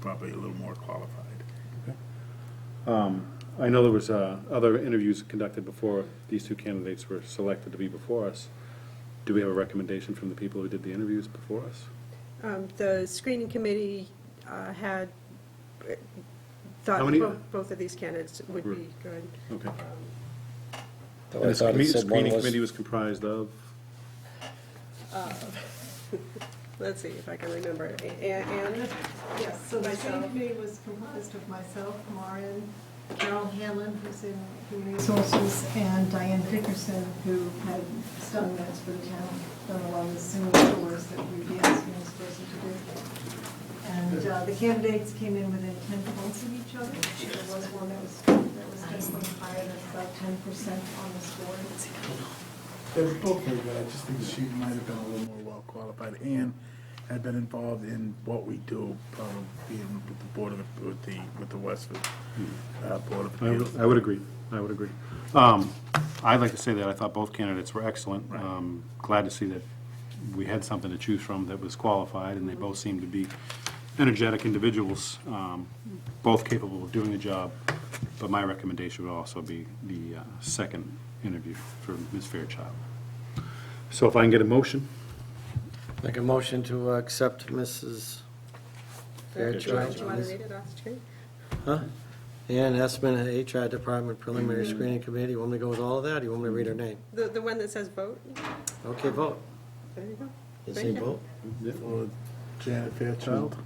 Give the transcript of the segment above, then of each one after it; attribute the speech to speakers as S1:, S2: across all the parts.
S1: probably a little more qualified.
S2: I know there was uh, other interviews conducted before these two candidates were selected to be before us. Do we have a recommendation from the people who did the interviews before us?
S3: Um, The screening committee uh, had uh, thought
S2: How many-
S3: bo- both of these candidates would be good.
S2: Okay.
S4: Though
S2: And
S4: I
S2: the
S4: thought it
S2: screen-
S4: said one
S2: screening committee
S4: was,
S2: was comprised of,
S3: Let's see if I can remember. A- a- Anne?
S5: Yes, so the screening
S3: Myself.
S5: committee was composed of myself, Maureen, Carol Hanlon, who's in Human Resources, and Diane Dickerson, who had done notes for the town, done a lot of Zoom tours that we'd be asking this person to do. And uh, the candidates came in within ten points of each other. There was one that was, that was definitely higher, that's about ten percent on the score.
S1: They were both very good, I just think she might have been a little more well-qualified and had been involved in what we do, um, being with the Board of, with the, with the Westford,
S6: Hmm.
S1: uh, Board of
S2: I
S1: Appeals.
S2: would I would agree, I would agree. Um, I'd like to say that I thought both candidates were excellent. Um, Glad to see that we had something to choose from that was qualified, and they both seemed to be energetic individuals, um, both capable of doing the job. But my recommendation would also be the uh, second interview for Ms. Fairchild. So if I can get a motion?
S4: make a motion to uh, accept Mrs.
S3: Do you want to
S4: Fairchild.
S3: read it off the screen?
S4: Huh? Ann Esman, HR Department Preliminary Screening Committee. You want me to go with all of that, or you want me to read her name?
S3: The, the one that says vote?
S4: Okay, vote.
S3: There you go.
S4: You say
S3: Right here.
S4: vote?
S1: Or Janet Fairchild?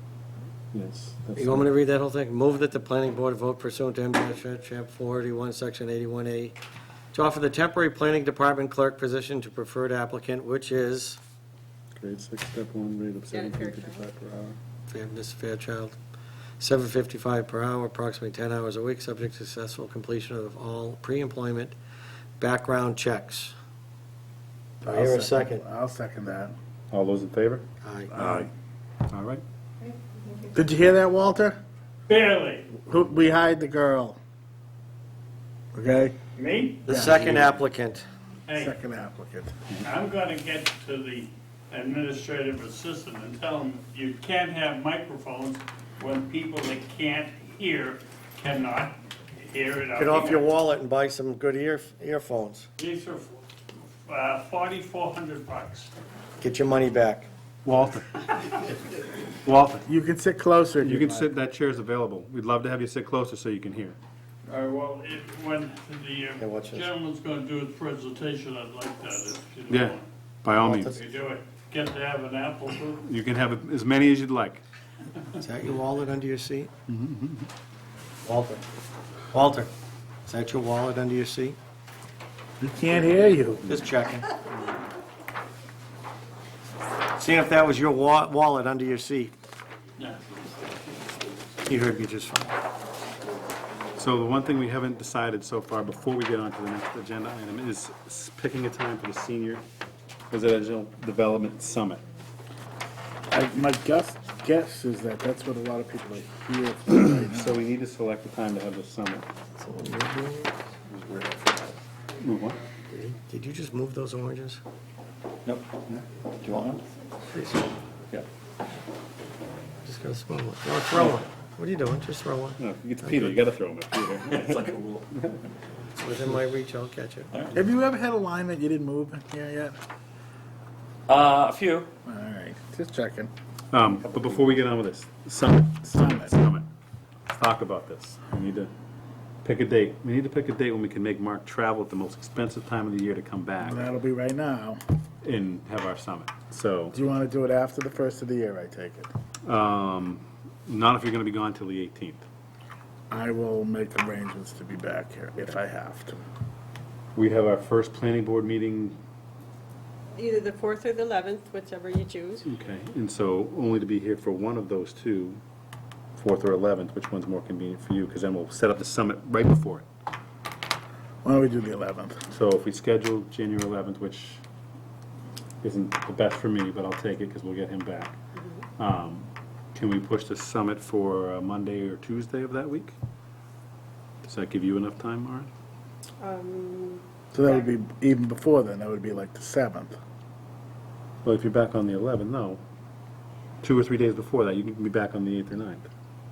S2: Yes.
S4: You want me to read that whole thing? Move that the planning board vote pursuant to MGL Chapter 481, Section 81A, to offer the temporary planning department clerk position to preferred applicant, which is
S2: Grade six, step one, rate of
S3: Janet 17.55 Fairchild.
S2: per hour.
S4: Yeah, Ms. Fairchild, seven fifty-five per hour, approximately ten hours a week, subject to successful completion of all pre-employment background checks. Do I hear a second?
S1: I'll second that.
S2: All those in favor?
S4: Aye.
S1: Aye.
S2: All right.
S6: Did you hear that, Walter?
S7: Barely.
S6: Who, we hired the girl. Okay?
S7: Me?
S4: The second applicant,
S7: Hey,
S6: Second applicant.
S7: I'm gonna get to the administrative assistant and tell him you can't have microphones when people that can't hear cannot hear it. out
S4: get off your
S7: here.
S4: wallet and buy some good ear, earphones.
S7: These are, uh, forty-four hundred bucks.
S4: Get your money back.
S2: Walter. Walter.
S6: You can sit closer if
S2: You
S6: you
S2: can
S6: like.
S2: sit, that chair's available. We'd love to have you sit closer so you can hear.
S7: All right, Uh, well, if, when the
S4: Hey,
S7: uh,
S4: watch this.
S7: gentleman's gonna do his presentation, I'd like that if you don't
S2: Yeah,
S7: mind.
S2: by all means.
S7: If you do it, get to have an apple too.
S2: You can have as many as you'd like.
S4: Is that your wallet under your seat? Walter, Walter, is that your wallet under your seat?
S6: We can't hear you.
S4: Just checking. Seeing if that was your wa- wallet under your seat.
S7: Yeah.
S4: You heard me just fine.
S2: So the one thing we haven't decided so far, before we get on to the next agenda item, is s- picking a time for the Senior Residential Development Summit.
S6: I, my guess, guess is that that's what a lot of people are here for.
S2: So we need to select a time to have the summit. Move on.
S4: Did you just move those oranges?
S2: Nope. Do you want one? Yeah.
S4: Just gonna smell one. No, throw one. What are you doing? Just throw one.
S2: No, it's Peter, you gotta throw him a Peter.
S4: It's Within my reach, I'll catch it.
S6: Have you ever had a line that you didn't move here yet?
S8: Uh, a few.
S6: All right, just checking.
S2: Um, but before we get on with this, summit, summit, summit, let's talk about this. We need to pick a date. We need to pick a date when we can make Mark travel at the most expensive time of the year to come back
S6: That'll be right now.
S2: and have our summit. So,
S6: Do you want to do it after the first of the year, I take it?
S2: um, not if you're gonna be gone till the eighteenth.
S6: I will make arrangements to be back here if I have to.
S2: We have our first planning board meeting,
S3: Either the 4th or the 11th, whichever you choose.
S2: okay, and so only to be here for one of those two, fourth or eleventh, which one's more convenient for you, because then we'll set up the summit right before it.
S6: Why don't we do the eleventh?
S2: So if we schedule January 11th, which isn't the best for me, but I'll take it because we'll get him back. um, Can we push the summit for uh, Monday or Tuesday of that week? Does that give you enough time, Maren?
S3: Um,
S6: So that would be even before then, that would be like the seventh.
S2: Well, if you're back on the 11th, no. Two or three days before that, you can be back on the 8th or 9th.